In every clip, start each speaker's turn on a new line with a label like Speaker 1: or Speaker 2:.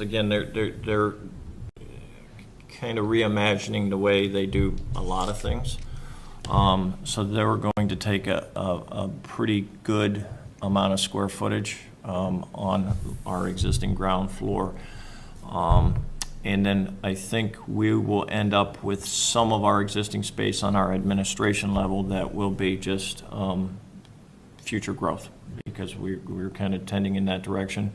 Speaker 1: Again, they're, they're, they're kind of reimagining the way they do a lot of things. Um, so they were going to take a, a, a pretty good amount of square footage, um, on our existing ground floor. Um, and then I think we will end up with some of our existing space on our administration level that will be just, um, future growth, because we, we're kind of tending in that direction.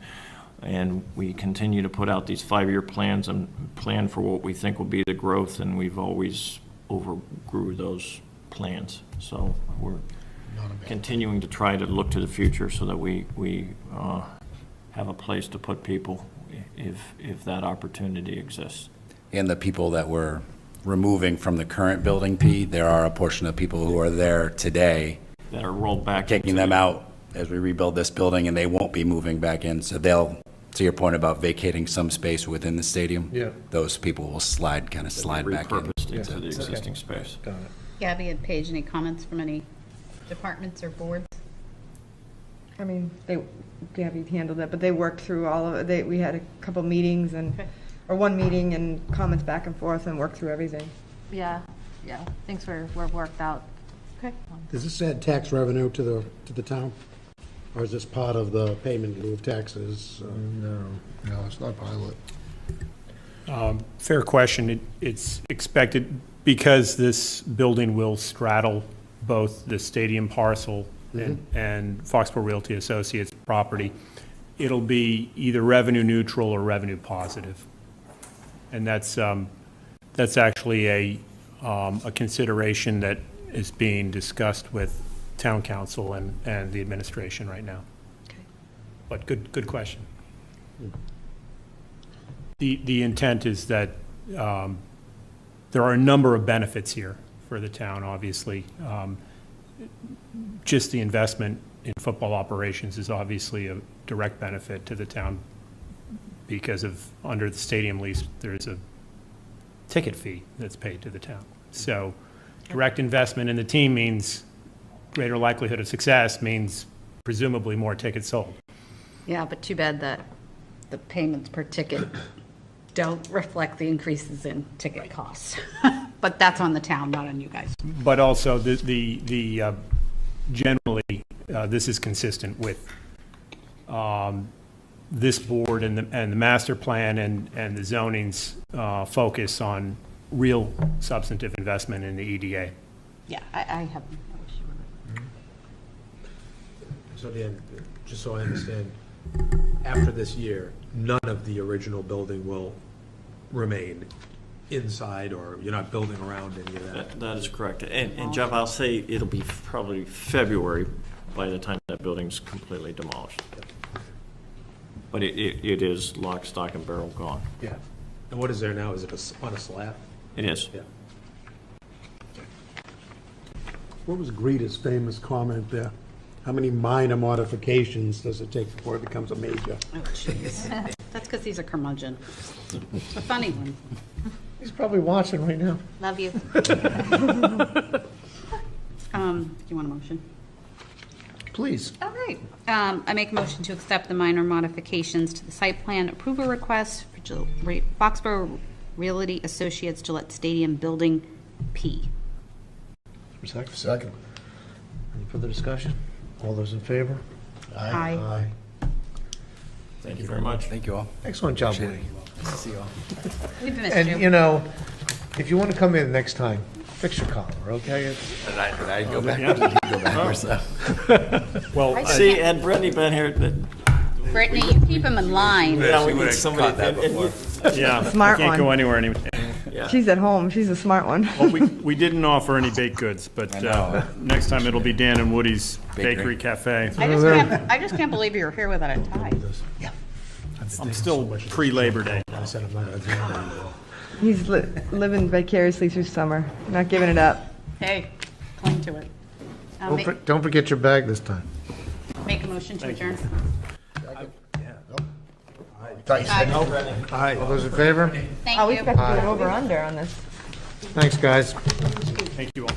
Speaker 1: And we continue to put out these five-year plans and plan for what we think will be the growth, and we've always overgrew those plans. So we're continuing to try to look to the future so that we, we uh, have a place to put people if, if that opportunity exists.
Speaker 2: And the people that we're removing from the current building,
Speaker 1: Mm-hmm.
Speaker 2: Pete, there are a portion of people who are there today,
Speaker 1: That are rolled back.
Speaker 2: taking
Speaker 1: into-
Speaker 2: them out as we rebuild this building, and they won't be moving back in. So they'll, to your point about vacating some space within the stadium.
Speaker 3: Yeah.
Speaker 2: Those people will slide, kind of slide back in.
Speaker 1: Repurposed into the
Speaker 3: Yeah.
Speaker 1: existing space.
Speaker 3: Got it.
Speaker 4: Gabby and Paige, any comments from any departments or boards?
Speaker 5: I mean, they, Gabby handled that, but they worked through all of it. They, we had a couple meetings and,
Speaker 4: Okay.
Speaker 5: or one meeting and comments back and forth and worked through everything.
Speaker 6: Yeah, yeah, things were, were worked out.
Speaker 4: Okay.
Speaker 6: Um,
Speaker 7: Does this add tax revenue to the, to the town? Or is this part of the payment in lieu of taxes? uh,
Speaker 3: No.
Speaker 8: No, it's not pilot.
Speaker 9: Fair question. It- It's expected, because this building will straddle both the stadium parcel and and Foxborough Realty Associates property, it'll be either revenue neutral or revenue positive. And that's, um, that's actually a, um, a consideration that is being discussed with town council and, and the administration right now. But good, good question. The, the intent is that um, there are a number of benefits here for the town, obviously. Um, Just the investment in football operations is obviously a direct benefit to the town because of, under the stadium lease, there's a ticket fee that's paid to the town. So direct investment in the team means greater likelihood of success, means presumably more tickets sold.
Speaker 4: Yeah, but too bad that the payments per ticket don't reflect the increases in ticket costs. But that's on the town, not on you guys.
Speaker 9: But also, the, the, the uh, generally, uh, this is consistent with um, this board and the, and the master plan and, and the zoning's uh, focus on real substantive investment in the E EDA.
Speaker 4: Yeah, I, I have no issue with it.
Speaker 3: So Dan, just so I understand, after this year, none of the original building will remain inside, or you're not building around any of that?
Speaker 1: That, that is correct. And, and Jeff, I'll say it'll be probably February by the time that building's completely demolished. But it, it, it is lock, stock, and barrel gone.
Speaker 3: Yeah. And what is there now? Is it a s- on a slab?
Speaker 1: It is.
Speaker 3: Yeah.
Speaker 7: What was Greta's famous comment there? How many minor modifications does it take before it becomes a major?
Speaker 4: Oh, jeez. That's because he's a curmudgeon. A Funny one.
Speaker 3: He's probably watching right now.
Speaker 6: Love you.
Speaker 4: Um, do you want a motion?
Speaker 8: Please.
Speaker 4: All right. Um, I make a motion to accept the minor modifications to the site plan approval request for Gil- Re- Foxborough Realty Associates Gillette Stadium Building P.
Speaker 8: Second.
Speaker 3: Any further discussion? All those in favor?
Speaker 4: Aye.
Speaker 1: Thank you very much.
Speaker 2: Thank you all.
Speaker 3: Excellent job, Woody.
Speaker 4: We've missed
Speaker 3: And,
Speaker 4: you.
Speaker 3: you know, if you want to come in next time, fix your collar, okay?
Speaker 2: And I, and I
Speaker 1: Oh,
Speaker 2: go back, go backwards. though.
Speaker 9: Well,
Speaker 1: See, had Brittany been here,
Speaker 4: Brittany, you keep him in line.
Speaker 1: now we
Speaker 2: we
Speaker 1: need
Speaker 2: would've
Speaker 1: somebody.
Speaker 2: caught that
Speaker 1: and- and you-
Speaker 2: before.
Speaker 9: yeah,
Speaker 5: Smart
Speaker 9: can't go
Speaker 5: one.
Speaker 9: anywhere anymore.
Speaker 5: She's at home. She's a smart one.
Speaker 9: Well, we, we didn't offer any baked goods, but
Speaker 2: I
Speaker 9: uh,
Speaker 2: know.
Speaker 9: next time it'll be Dan and Woody's
Speaker 2: Bakery.
Speaker 9: Bakery Cafe.
Speaker 4: I just can't, I just can't believe you were here without a tie.
Speaker 9: I'm still pre-Labor Day.
Speaker 3: I said I'm not gonna do it anymore.
Speaker 5: He's li- living vicariously through summer, not giving it up.
Speaker 4: Hey, cling to it. I'll
Speaker 3: Don't
Speaker 4: ma-
Speaker 3: for- Don't forget your bag this time.
Speaker 4: Make a motion to adjourn.
Speaker 3: Aye. All those in favor?
Speaker 5: Oh,
Speaker 4: Thank
Speaker 5: we've
Speaker 4: you.
Speaker 5: got to do an over-under on this.
Speaker 3: Thanks, guys.
Speaker 9: Thank you all.